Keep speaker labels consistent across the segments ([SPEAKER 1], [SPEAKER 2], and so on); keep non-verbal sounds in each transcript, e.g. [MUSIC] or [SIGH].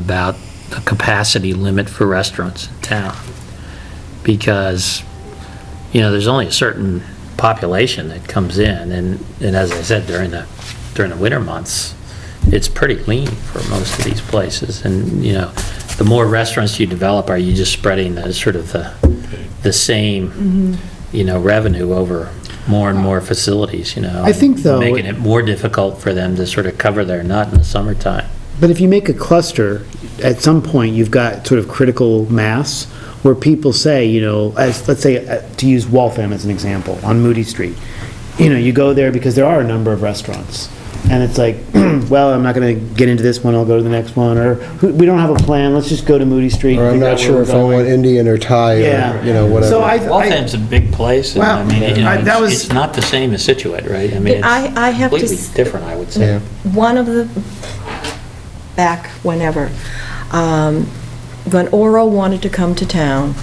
[SPEAKER 1] about the capacity limit for restaurants in town. Because, you know, there's only a certain population that comes in, and, and as I said, during the, during the winter months, it's pretty lean for most of these places, and, you know, the more restaurants you develop, are you just spreading the, sort of the, the same,
[SPEAKER 2] Mm-hmm.
[SPEAKER 1] you know, revenue over more and more facilities, you know?
[SPEAKER 2] I think, though-
[SPEAKER 1] Making it more difficult for them to sort of cover their nut in the summertime.
[SPEAKER 2] But if you make a cluster, at some point, you've got sort of critical mass where people say, you know, as, let's say, uh, to use Waltham as an example, on Moody Street. You know, you go there because there are a number of restaurants. And it's like, [CLEARS THROAT] well, I'm not going to get into this one, I'll go to the next one, or "Who- we don't have a plan, let's just go to Moody Street. and
[SPEAKER 3] Or I'm
[SPEAKER 2] figure out
[SPEAKER 3] not
[SPEAKER 2] where
[SPEAKER 3] sure
[SPEAKER 2] we're
[SPEAKER 3] if I
[SPEAKER 2] going."
[SPEAKER 3] want Indian or Thai
[SPEAKER 2] Yeah.
[SPEAKER 3] or, you know, whatever.
[SPEAKER 2] So I, I,
[SPEAKER 1] Waltham's a big place, and I
[SPEAKER 2] Well,
[SPEAKER 1] mean, you
[SPEAKER 2] I-
[SPEAKER 1] know,
[SPEAKER 2] that
[SPEAKER 1] it's-
[SPEAKER 2] was-
[SPEAKER 1] it's not the same as Situate, right? I mean,
[SPEAKER 4] I- I
[SPEAKER 1] it's
[SPEAKER 4] have to
[SPEAKER 1] completely
[SPEAKER 4] s-
[SPEAKER 1] different, I would
[SPEAKER 3] Yeah.
[SPEAKER 1] say.
[SPEAKER 4] one of the, back whenever, um, when Oro wanted to come to town,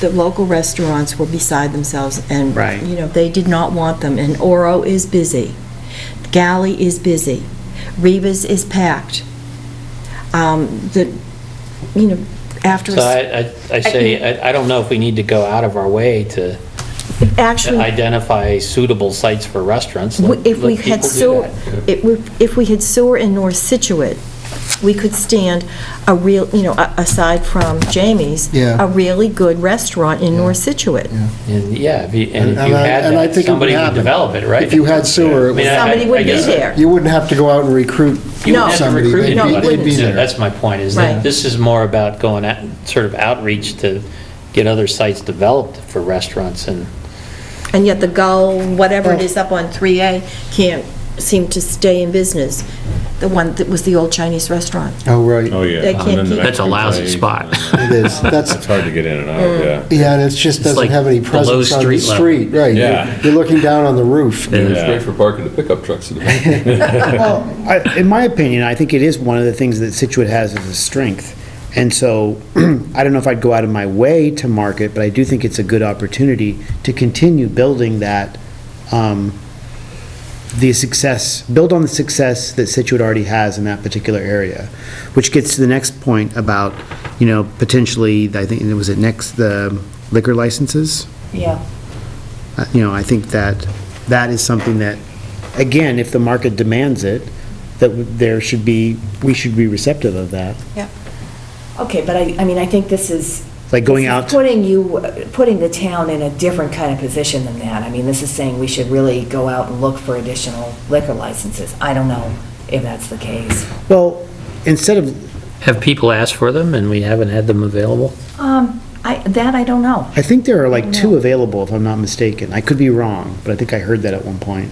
[SPEAKER 4] the local restaurants were beside themselves, and,
[SPEAKER 2] Right.
[SPEAKER 4] you know, they did not want them, and Oro is busy, Galley is busy, Reva's is packed. Um, The, you know, after,
[SPEAKER 1] So I, I- I say, I I don't know if we need to go out of our way to
[SPEAKER 4] actually...
[SPEAKER 1] identify suitable sites for restaurants.
[SPEAKER 4] We-
[SPEAKER 1] Let-
[SPEAKER 4] If we
[SPEAKER 1] let
[SPEAKER 4] had
[SPEAKER 1] people do
[SPEAKER 4] sewer,
[SPEAKER 1] that.
[SPEAKER 4] if we- if we had sewer in North Situate, we could stand a real, you know, a- aside from Jamie's,
[SPEAKER 3] Yeah.
[SPEAKER 4] a really good restaurant in North Situate.
[SPEAKER 1] And, yeah, if you, and if you
[SPEAKER 3] I-
[SPEAKER 1] had
[SPEAKER 3] and I think it
[SPEAKER 1] that,
[SPEAKER 3] would
[SPEAKER 1] somebody would
[SPEAKER 3] happen.
[SPEAKER 1] develop it, right?
[SPEAKER 3] If you had sewer, it
[SPEAKER 1] I mean, I-
[SPEAKER 4] Somebody
[SPEAKER 1] I- I
[SPEAKER 4] would be
[SPEAKER 1] guess-
[SPEAKER 4] there.
[SPEAKER 3] You wouldn't have to go out and recruit
[SPEAKER 1] You wouldn't
[SPEAKER 4] No.
[SPEAKER 1] have to
[SPEAKER 3] somebody.
[SPEAKER 1] recruit
[SPEAKER 3] They'd be-
[SPEAKER 4] No, it
[SPEAKER 1] anybody.
[SPEAKER 3] They'd be
[SPEAKER 4] wouldn't.
[SPEAKER 1] Yeah,
[SPEAKER 3] there.
[SPEAKER 1] That's my point, is
[SPEAKER 4] Right.
[SPEAKER 1] that this is more about going out, sort of outreach to get other sites developed for restaurants and,
[SPEAKER 4] And yet the Gull, whatever it is up on 3A, can't seem to stay in business, the one that was the old Chinese restaurant.
[SPEAKER 3] Oh, right.
[SPEAKER 5] Oh, yeah.
[SPEAKER 4] They
[SPEAKER 5] And
[SPEAKER 4] can't
[SPEAKER 5] then the
[SPEAKER 4] keep-
[SPEAKER 1] That's a
[SPEAKER 5] Mexican
[SPEAKER 1] lousy
[SPEAKER 5] place, [LAUGHS]
[SPEAKER 1] spot.
[SPEAKER 5] and then-
[SPEAKER 3] It is. That's-
[SPEAKER 5] It's hard to get in and out, yeah.
[SPEAKER 3] Yeah, and it just doesn't
[SPEAKER 1] like
[SPEAKER 3] have any
[SPEAKER 1] below
[SPEAKER 3] presence on the
[SPEAKER 1] street level.
[SPEAKER 3] street, right? You're-
[SPEAKER 5] Yeah.
[SPEAKER 3] You're looking down on the roof.
[SPEAKER 6] It's
[SPEAKER 5] Yeah.
[SPEAKER 6] great for parking the pickup trucks in the
[SPEAKER 5] [LAUGHS]
[SPEAKER 2] well, [LAUGHS] I- in my opinion, I think it is one of the things that Situate has as a strength. And so, [CLEARS THROAT] I don't know if I'd go out of my way to market, but I do think it's a good opportunity to continue building that, um, the success, build on the success that Situate already has in that particular area, which gets to the next point about, you know, potentially, I think, was it next, the liquor licenses?
[SPEAKER 4] Yeah.
[SPEAKER 2] Uh, You know, I think that that is something that, again, if the market demands it, that w- there should be, we should be receptive of that.
[SPEAKER 7] Okay, but I, I mean, I think this is.
[SPEAKER 2] Like going
[SPEAKER 7] this is
[SPEAKER 2] out-
[SPEAKER 7] Putting you, putting the town in a different kind of position than that. I mean, this is saying we should really go out and look for additional liquor licenses. I don't know if that's the case.
[SPEAKER 2] Well, instead of,
[SPEAKER 1] have people asked for them, and we haven't had them available?
[SPEAKER 7] Um, I, that I don't know.
[SPEAKER 2] I think there are like two available, if I'm not mistaken. I could be wrong, but I think I heard that at one point.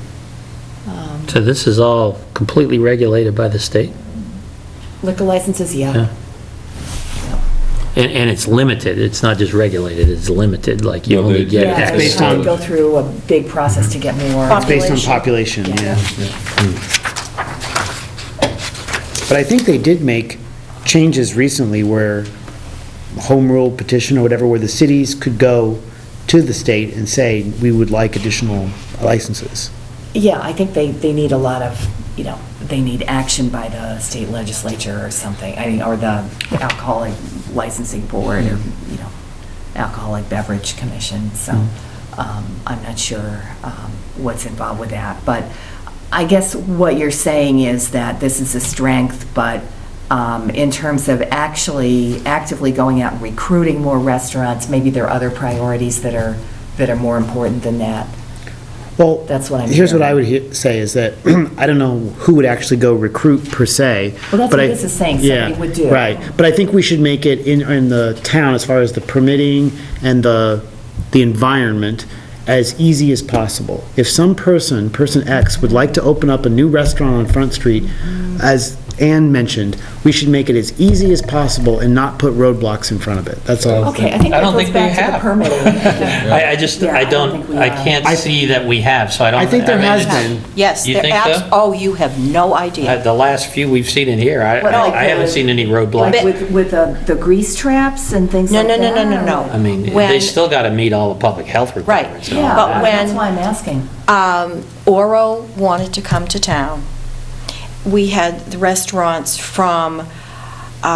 [SPEAKER 7] Um,
[SPEAKER 1] So this is all completely regulated by the state,
[SPEAKER 7] Liquor licenses,
[SPEAKER 1] Yeah.
[SPEAKER 7] yeah.
[SPEAKER 1] and, and it's limited, it's not just regulated, it's limited, like you
[SPEAKER 6] No,
[SPEAKER 1] only
[SPEAKER 6] they-
[SPEAKER 1] get
[SPEAKER 6] Yeah,
[SPEAKER 7] Yeah,
[SPEAKER 1] X.
[SPEAKER 7] we
[SPEAKER 2] based
[SPEAKER 7] have to
[SPEAKER 2] on-
[SPEAKER 7] Go through a big process to get more.
[SPEAKER 2] It's based on population, yeah. Hmm. But I think they did make changes recently where home rule petition or whatever, where the cities could go to the state and say, we would like additional licenses.
[SPEAKER 7] Yeah, I think they, they need a lot of, you know, they need action by the state legislature or something, I mean, or the alcoholic licensing board, or, you know, alcoholic beverage commission, so um, I'm not sure um, what's involved with that. But I guess what you're saying is that this is a strength, but um, in terms of actually actively going out and recruiting more restaurants, maybe there are other priorities that are, that are more important than that.
[SPEAKER 2] Well,
[SPEAKER 7] That's what I'm
[SPEAKER 2] Here's what
[SPEAKER 7] hearing.
[SPEAKER 2] I would he- say is that, [CLEARS THROAT] I don't know who would actually go recruit per se.
[SPEAKER 7] Well, that's
[SPEAKER 2] but
[SPEAKER 7] what
[SPEAKER 2] I-
[SPEAKER 7] this is saying, somebody
[SPEAKER 2] Yeah,
[SPEAKER 7] would do.
[SPEAKER 2] Right, but I think we should make it in, in the town, as far as the permitting and the, the environment, as easy as possible. If some person, person X, would like to open up a new restaurant on Front Street, as Ann mentioned, we should make it as easy as possible and not put roadblocks in front of it, that's all. I'm saying.
[SPEAKER 7] Okay, I think
[SPEAKER 1] I
[SPEAKER 7] that
[SPEAKER 1] don't
[SPEAKER 7] goes
[SPEAKER 1] think we
[SPEAKER 7] back to the
[SPEAKER 1] have. [LAUGHS]
[SPEAKER 7] permitting.
[SPEAKER 1] I, I just,
[SPEAKER 7] Yeah,
[SPEAKER 1] I
[SPEAKER 7] I don't think
[SPEAKER 1] don't,
[SPEAKER 7] we
[SPEAKER 1] I
[SPEAKER 7] are.
[SPEAKER 1] can't see that we have, so I don't.
[SPEAKER 2] I think there
[SPEAKER 1] mean,
[SPEAKER 2] has
[SPEAKER 1] it's-
[SPEAKER 2] been.
[SPEAKER 4] Yes.
[SPEAKER 1] You
[SPEAKER 4] they're
[SPEAKER 1] think
[SPEAKER 4] abs-
[SPEAKER 1] so?
[SPEAKER 4] Oh, you have no
[SPEAKER 1] Uh,
[SPEAKER 4] idea.
[SPEAKER 1] The last few we've seen in here, I,
[SPEAKER 7] Well, like
[SPEAKER 1] I haven't
[SPEAKER 7] the-
[SPEAKER 1] seen any
[SPEAKER 7] Like
[SPEAKER 1] roadblocks.
[SPEAKER 7] with, with the the grease traps and things
[SPEAKER 4] No,
[SPEAKER 7] like
[SPEAKER 4] no,
[SPEAKER 7] that?
[SPEAKER 4] no, no, no,
[SPEAKER 1] I
[SPEAKER 4] no.
[SPEAKER 1] mean, they
[SPEAKER 4] When-
[SPEAKER 1] still got to meet all the public health requirements. and all
[SPEAKER 7] Yeah,
[SPEAKER 4] But
[SPEAKER 1] that.
[SPEAKER 4] when-
[SPEAKER 7] that's why I'm asking.
[SPEAKER 4] um, Oro wanted to come to town. We had the restaurants from